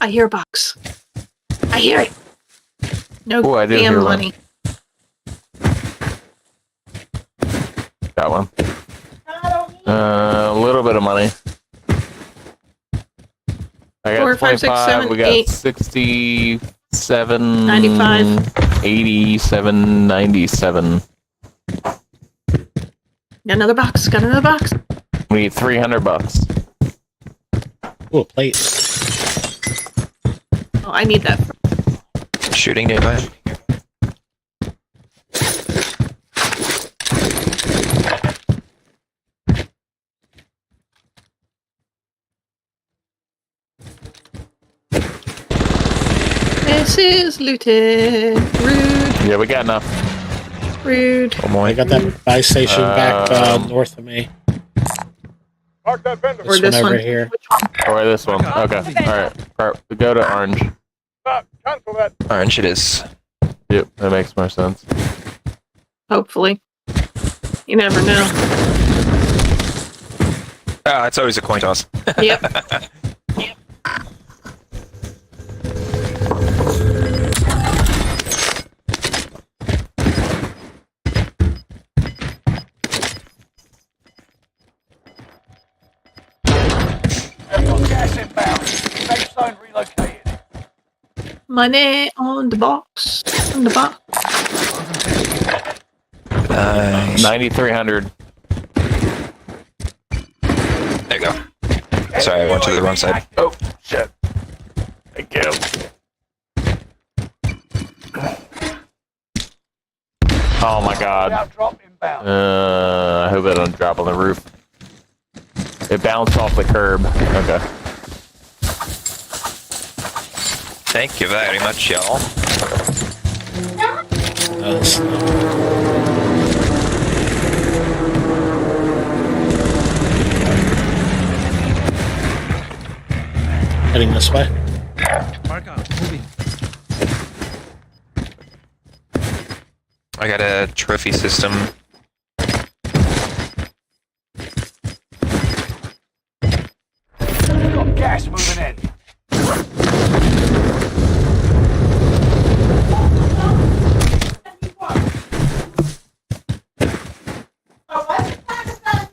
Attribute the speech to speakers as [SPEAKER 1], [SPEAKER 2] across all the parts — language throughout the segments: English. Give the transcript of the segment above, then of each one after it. [SPEAKER 1] I hear a box. I hear it. No
[SPEAKER 2] Oh, I did
[SPEAKER 1] damn
[SPEAKER 2] hear one.
[SPEAKER 1] money.
[SPEAKER 2] Got one. Uh, a little bit of money. I got
[SPEAKER 1] Four, five, six,
[SPEAKER 2] 25,
[SPEAKER 1] seven,
[SPEAKER 2] we got
[SPEAKER 1] eight.
[SPEAKER 2] 67,
[SPEAKER 1] 95.
[SPEAKER 2] 87, 97.
[SPEAKER 1] Got another box. Got another box.
[SPEAKER 2] We need 300 bucks.
[SPEAKER 3] Ooh, a plate.
[SPEAKER 1] Oh, I need that.
[SPEAKER 4] Shooting nearby.
[SPEAKER 1] This is looted. Rude.
[SPEAKER 2] Yeah, we got enough.
[SPEAKER 1] Rude.
[SPEAKER 4] Oh boy.
[SPEAKER 3] I got that buy station back uh,
[SPEAKER 2] Um,
[SPEAKER 3] north of me.
[SPEAKER 5] Mark that vendor.
[SPEAKER 3] This,
[SPEAKER 1] this
[SPEAKER 3] one over
[SPEAKER 1] one.
[SPEAKER 3] here.
[SPEAKER 1] Which one?
[SPEAKER 2] Or this one. Okay. All right. All right. Go to orange.
[SPEAKER 5] Stop. Cancel that.
[SPEAKER 4] Orange it is.
[SPEAKER 2] Yep, that makes more sense.
[SPEAKER 1] Hopefully. You never know.
[SPEAKER 4] Ah, it's always a coin toss.
[SPEAKER 1] Yep.
[SPEAKER 5] Gas inbound. Safe zone relocated.
[SPEAKER 1] Money on the box. On the box.
[SPEAKER 4] Nice.
[SPEAKER 2] 9,300.
[SPEAKER 4] There you go. Sorry, I went to the wrong side.
[SPEAKER 2] Oh, shit. Thank you. Oh my god.
[SPEAKER 5] Now drop inbound.
[SPEAKER 2] Uh, I hope it don't drop on the roof. It bounced off the curb. Okay.
[SPEAKER 4] Thank you very much, y'all.
[SPEAKER 3] Uh, this- Heading this way.
[SPEAKER 4] I got a trophy system.
[SPEAKER 5] Got gas moving in.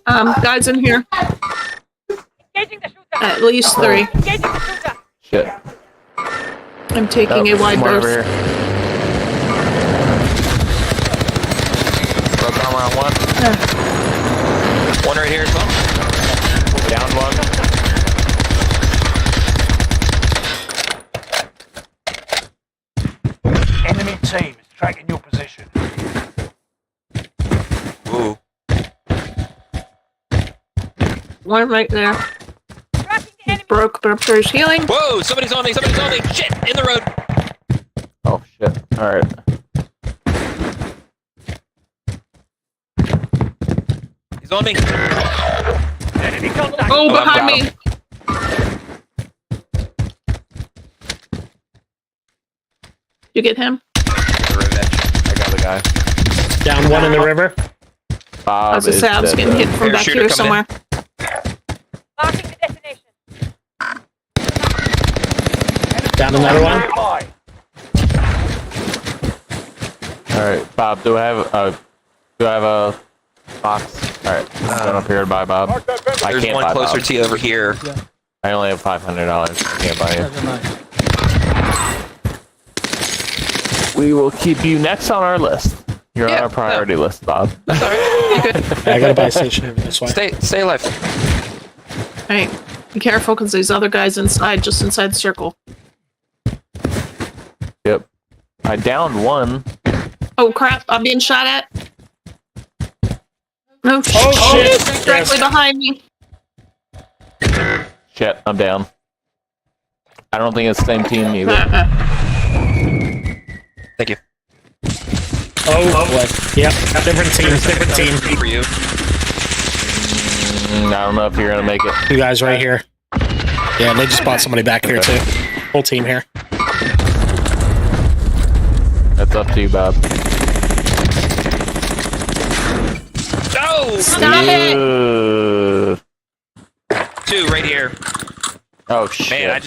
[SPEAKER 1] Um, guys in here.
[SPEAKER 6] Engaging the shooter.
[SPEAKER 1] At least three.
[SPEAKER 6] Engaging the shooter.
[SPEAKER 2] Shit.
[SPEAKER 1] I'm taking
[SPEAKER 2] Oh,
[SPEAKER 1] a wide
[SPEAKER 2] more over
[SPEAKER 1] berth.
[SPEAKER 2] here. Broke armor on one.
[SPEAKER 4] One right here as well.
[SPEAKER 2] Down one.
[SPEAKER 5] Enemy team is tracking your position.
[SPEAKER 4] Ooh.
[SPEAKER 1] One right there.
[SPEAKER 6] Tracking the enemy.
[SPEAKER 1] Broke, but upstairs healing.
[SPEAKER 4] Whoa! Somebody's on me! Somebody's on me! Shit! In the road.
[SPEAKER 2] Oh shit. Alright.
[SPEAKER 4] He's on me.
[SPEAKER 5] Enemy contact.
[SPEAKER 1] Oh,
[SPEAKER 2] Oh, I'm
[SPEAKER 1] behind me.
[SPEAKER 2] down.
[SPEAKER 1] You get him?
[SPEAKER 4] Revenge.
[SPEAKER 2] I got the guy.
[SPEAKER 3] Down one in the river.
[SPEAKER 2] Bob
[SPEAKER 1] I was gonna
[SPEAKER 2] is
[SPEAKER 1] say, I was
[SPEAKER 2] dead,
[SPEAKER 1] getting
[SPEAKER 2] though.
[SPEAKER 1] hit from back
[SPEAKER 4] Parachuter
[SPEAKER 1] here
[SPEAKER 4] coming
[SPEAKER 1] somewhere.
[SPEAKER 4] in.
[SPEAKER 6] Marking the destination.
[SPEAKER 3] Down another one.
[SPEAKER 5] Nearby.
[SPEAKER 2] All right, Bob. Do I have a do I have a box? All right, I'm going up here to buy Bob.
[SPEAKER 5] Mark that vendor.
[SPEAKER 2] I
[SPEAKER 4] There's
[SPEAKER 2] can't
[SPEAKER 4] one
[SPEAKER 2] buy
[SPEAKER 4] closer
[SPEAKER 2] Bob.
[SPEAKER 4] to you over here.
[SPEAKER 2] I only have five hundred dollars. I can't buy you. We will keep you next on our list. You're on
[SPEAKER 4] Yeah,
[SPEAKER 2] our priority list, Bob.
[SPEAKER 3] I got a buy station over this way.
[SPEAKER 4] Stay, stay alive.
[SPEAKER 1] Hey, be careful because these other guys inside, just inside the circle.
[SPEAKER 2] Yep. I downed one.
[SPEAKER 1] Oh crap! I'm being shot at. No shit!
[SPEAKER 3] Oh, shit.
[SPEAKER 1] Directly
[SPEAKER 3] Yes.
[SPEAKER 1] behind me.
[SPEAKER 2] Shit, I'm down. I don't think it's the same team either.
[SPEAKER 1] Uh-uh.
[SPEAKER 4] Thank you.
[SPEAKER 3] Oh, boy. Yep. Different team. Different team.
[SPEAKER 4] For you.
[SPEAKER 2] Mm, I don't know if you're gonna make it.
[SPEAKER 3] You guys right here. Yeah, they just bought somebody back here too. Whole team here.
[SPEAKER 2] That's up to you, Bob.
[SPEAKER 4] No!
[SPEAKER 1] Stop it!
[SPEAKER 2] Ugh.
[SPEAKER 4] Two right here.
[SPEAKER 2] Oh shit!
[SPEAKER 4] Man, I